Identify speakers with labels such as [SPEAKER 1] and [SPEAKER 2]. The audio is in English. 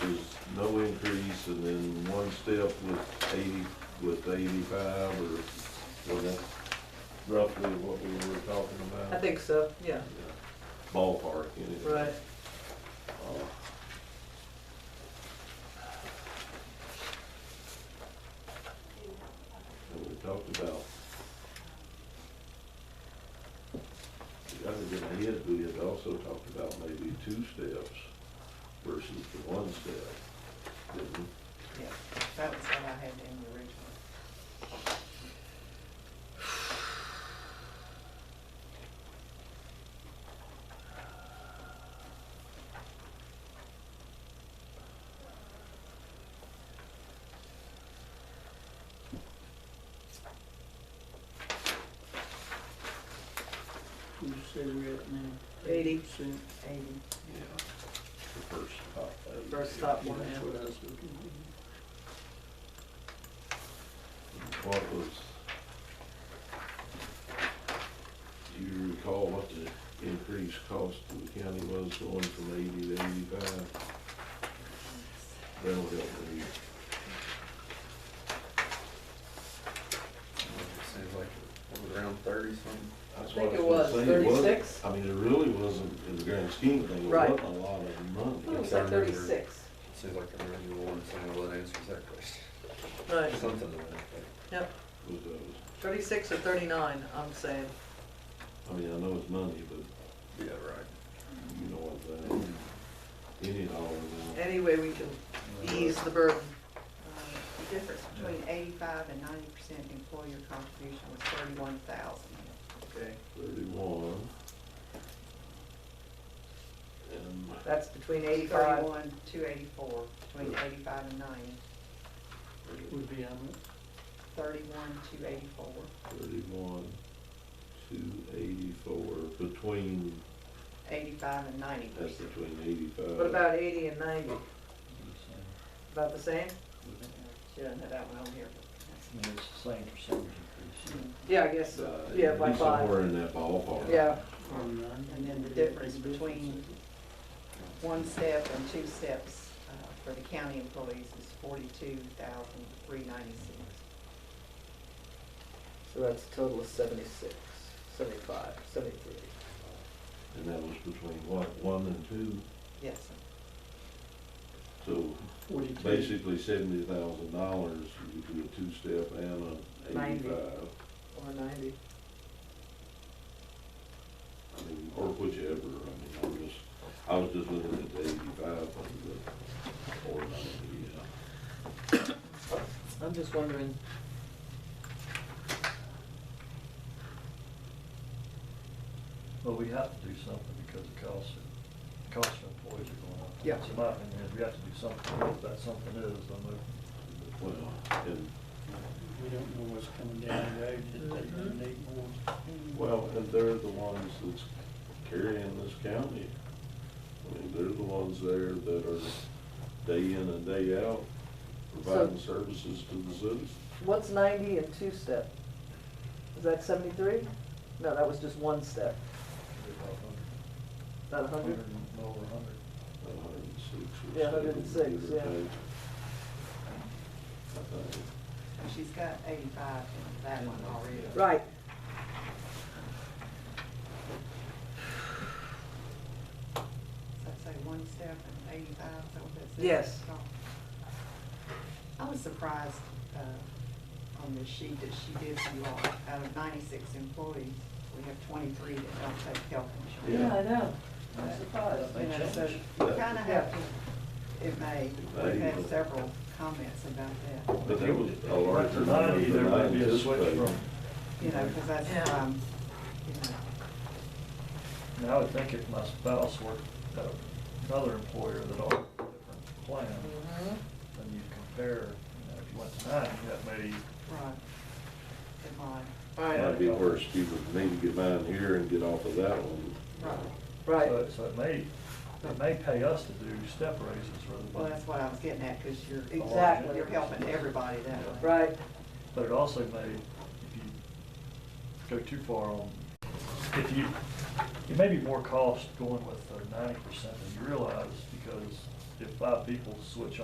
[SPEAKER 1] no increase, and then one step with eighty, with eighty-five, or, or that's roughly what we were talking about.
[SPEAKER 2] I think so, yeah,
[SPEAKER 1] Yeah. Ballpark, anyway.
[SPEAKER 2] right.
[SPEAKER 1] Uh, And we talked about. The other thing I had, we had also talked about maybe two steps versus the one step. didn't we?
[SPEAKER 3] Yeah, that was what I had in the original.
[SPEAKER 4] You say we're at now?
[SPEAKER 2] Eighty.
[SPEAKER 4] Percent.
[SPEAKER 3] Eighty.
[SPEAKER 1] Yeah. The first top. eight.
[SPEAKER 2] First top
[SPEAKER 4] Yeah,
[SPEAKER 2] one,
[SPEAKER 4] That's
[SPEAKER 2] yeah.
[SPEAKER 4] what I was looking
[SPEAKER 1] What was? Do you recall what the increased cost to the county was going from eighty to eighty-five? That'll help me.
[SPEAKER 5] Seems like, it was around thirty something?
[SPEAKER 2] I
[SPEAKER 1] That's
[SPEAKER 2] think
[SPEAKER 1] what
[SPEAKER 2] it
[SPEAKER 1] gonna
[SPEAKER 2] was
[SPEAKER 1] say, it wasn't-
[SPEAKER 2] thirty-six.
[SPEAKER 1] I mean, it really wasn't, in the grand scheme of things, it
[SPEAKER 2] Right. Hmm.
[SPEAKER 1] wasn't a lot of
[SPEAKER 2] I thought it
[SPEAKER 1] money.
[SPEAKER 2] was like thirty-six,
[SPEAKER 5] Seems like I remember you wanted someone that answers that question.
[SPEAKER 2] right,
[SPEAKER 5] Something to that effect.
[SPEAKER 2] yep,
[SPEAKER 1] With those,
[SPEAKER 2] thirty-six or thirty-nine, I'm saying,
[SPEAKER 1] I mean, I know it's money, but
[SPEAKER 5] Yeah, right.
[SPEAKER 1] you know what I'm saying? uh, Any dollar now.
[SPEAKER 2] any way we can ease the burden.
[SPEAKER 3] The difference between eighty-five and ninety percent employer contribution was thirty-one thousand.
[SPEAKER 2] Okay.
[SPEAKER 1] Thirty-one. And
[SPEAKER 2] That's between eighty-five,
[SPEAKER 3] Thirty-one, two eighty-four, between eighty-five and ninety,
[SPEAKER 4] at. Would be how much?
[SPEAKER 3] thirty-one, two eighty-four,
[SPEAKER 1] thirty-one, two eighty-four, between,
[SPEAKER 3] eighty-five and ninety
[SPEAKER 1] that's
[SPEAKER 3] percent.
[SPEAKER 1] between eighty-five.
[SPEAKER 2] what about eighty and ninety, about the same?
[SPEAKER 3] Should have had that one on here.
[SPEAKER 6] It's the same percentage increase.
[SPEAKER 2] Yeah, I guess,
[SPEAKER 1] Uh,
[SPEAKER 2] so. yeah,
[SPEAKER 1] it'd
[SPEAKER 2] by
[SPEAKER 1] be
[SPEAKER 2] five,
[SPEAKER 1] Somewhere in that ballpark.
[SPEAKER 2] yeah,
[SPEAKER 4] Or none?
[SPEAKER 3] And then the difference between one step and two steps uh, for the county employees is forty-two thousand, three ninety-six.
[SPEAKER 7] So that's a total of seventy-six, seventy-five, seventy-three.
[SPEAKER 1] And that was between what, one and two,
[SPEAKER 3] Yes, sir.
[SPEAKER 1] so
[SPEAKER 4] Forty-two.
[SPEAKER 1] basically seventy thousand dollars, you could do a two-step and a
[SPEAKER 3] Ninety.
[SPEAKER 1] eighty-five.
[SPEAKER 2] or ninety,
[SPEAKER 1] I mean, or whichever, I mean, I was just, I was just looking at the eighty-five and the, or ninety, yeah.
[SPEAKER 7] I'm just wondering.
[SPEAKER 6] But we have to do something because the costs, are- the costs of employees are going up.
[SPEAKER 7] Yeah.
[SPEAKER 6] So my opinion is we have to do something, what that something is, I'm moving.
[SPEAKER 1] Well, and
[SPEAKER 4] We don't know what's coming down the road, that they're
[SPEAKER 3] Mm-hmm.
[SPEAKER 4] gonna need more.
[SPEAKER 1] Well, and they're the ones that's carrying this county. I mean, they're the ones there that are day in and day out providing services to the citizens.
[SPEAKER 7] What's ninety and two step? Is that seventy-three? No, that was just one step,
[SPEAKER 6] It'd be
[SPEAKER 7] not
[SPEAKER 6] about
[SPEAKER 7] a hundred?
[SPEAKER 6] Hundred and over a hundred.
[SPEAKER 1] A hundred and six or
[SPEAKER 7] Yeah, a hundred and
[SPEAKER 1] seven,
[SPEAKER 7] six,
[SPEAKER 1] give or
[SPEAKER 7] yeah.
[SPEAKER 1] take. I think.
[SPEAKER 3] She's got eighty-five in that one already.
[SPEAKER 7] Right.
[SPEAKER 3] So I'd say one step and eighty-five, so that's it.
[SPEAKER 2] Yes.
[SPEAKER 3] I was surprised, uh, on this sheet that she did you all, out of ninety-six employees, we have twenty-three that don't take health
[SPEAKER 1] Yeah,
[SPEAKER 3] insurance.
[SPEAKER 1] I
[SPEAKER 7] know,
[SPEAKER 3] I'm
[SPEAKER 7] surprised.
[SPEAKER 3] You know, so you kinda have to, it may,
[SPEAKER 1] It
[SPEAKER 3] we've
[SPEAKER 1] may.
[SPEAKER 3] had several comments about that,
[SPEAKER 1] But that was a larger
[SPEAKER 6] But Ninety,
[SPEAKER 1] number
[SPEAKER 6] there
[SPEAKER 1] than I
[SPEAKER 6] might be a switch
[SPEAKER 1] anticipated.
[SPEAKER 6] from,
[SPEAKER 3] you know, cause that's,
[SPEAKER 2] Yeah.
[SPEAKER 3] um, you know,
[SPEAKER 6] now I would think if my spouse worked at another employer that offered a different plan,
[SPEAKER 3] Mm-hmm.
[SPEAKER 6] then you compare, you know, if you went to nine, that may,
[SPEAKER 3] right. It might,
[SPEAKER 2] right,
[SPEAKER 1] Might be worse, you would need to get mine here and get off of that one.
[SPEAKER 3] right.
[SPEAKER 2] right,
[SPEAKER 6] so so it may, it may pay us to do step raises rather than.
[SPEAKER 3] Well, that's what I was getting at, because you're.
[SPEAKER 2] Exactly.
[SPEAKER 3] You're helping everybody that way.
[SPEAKER 2] right,
[SPEAKER 6] But it also may, if you go too far on, if you, it may be more cost going with the ninety percent than you realize, because if five people switch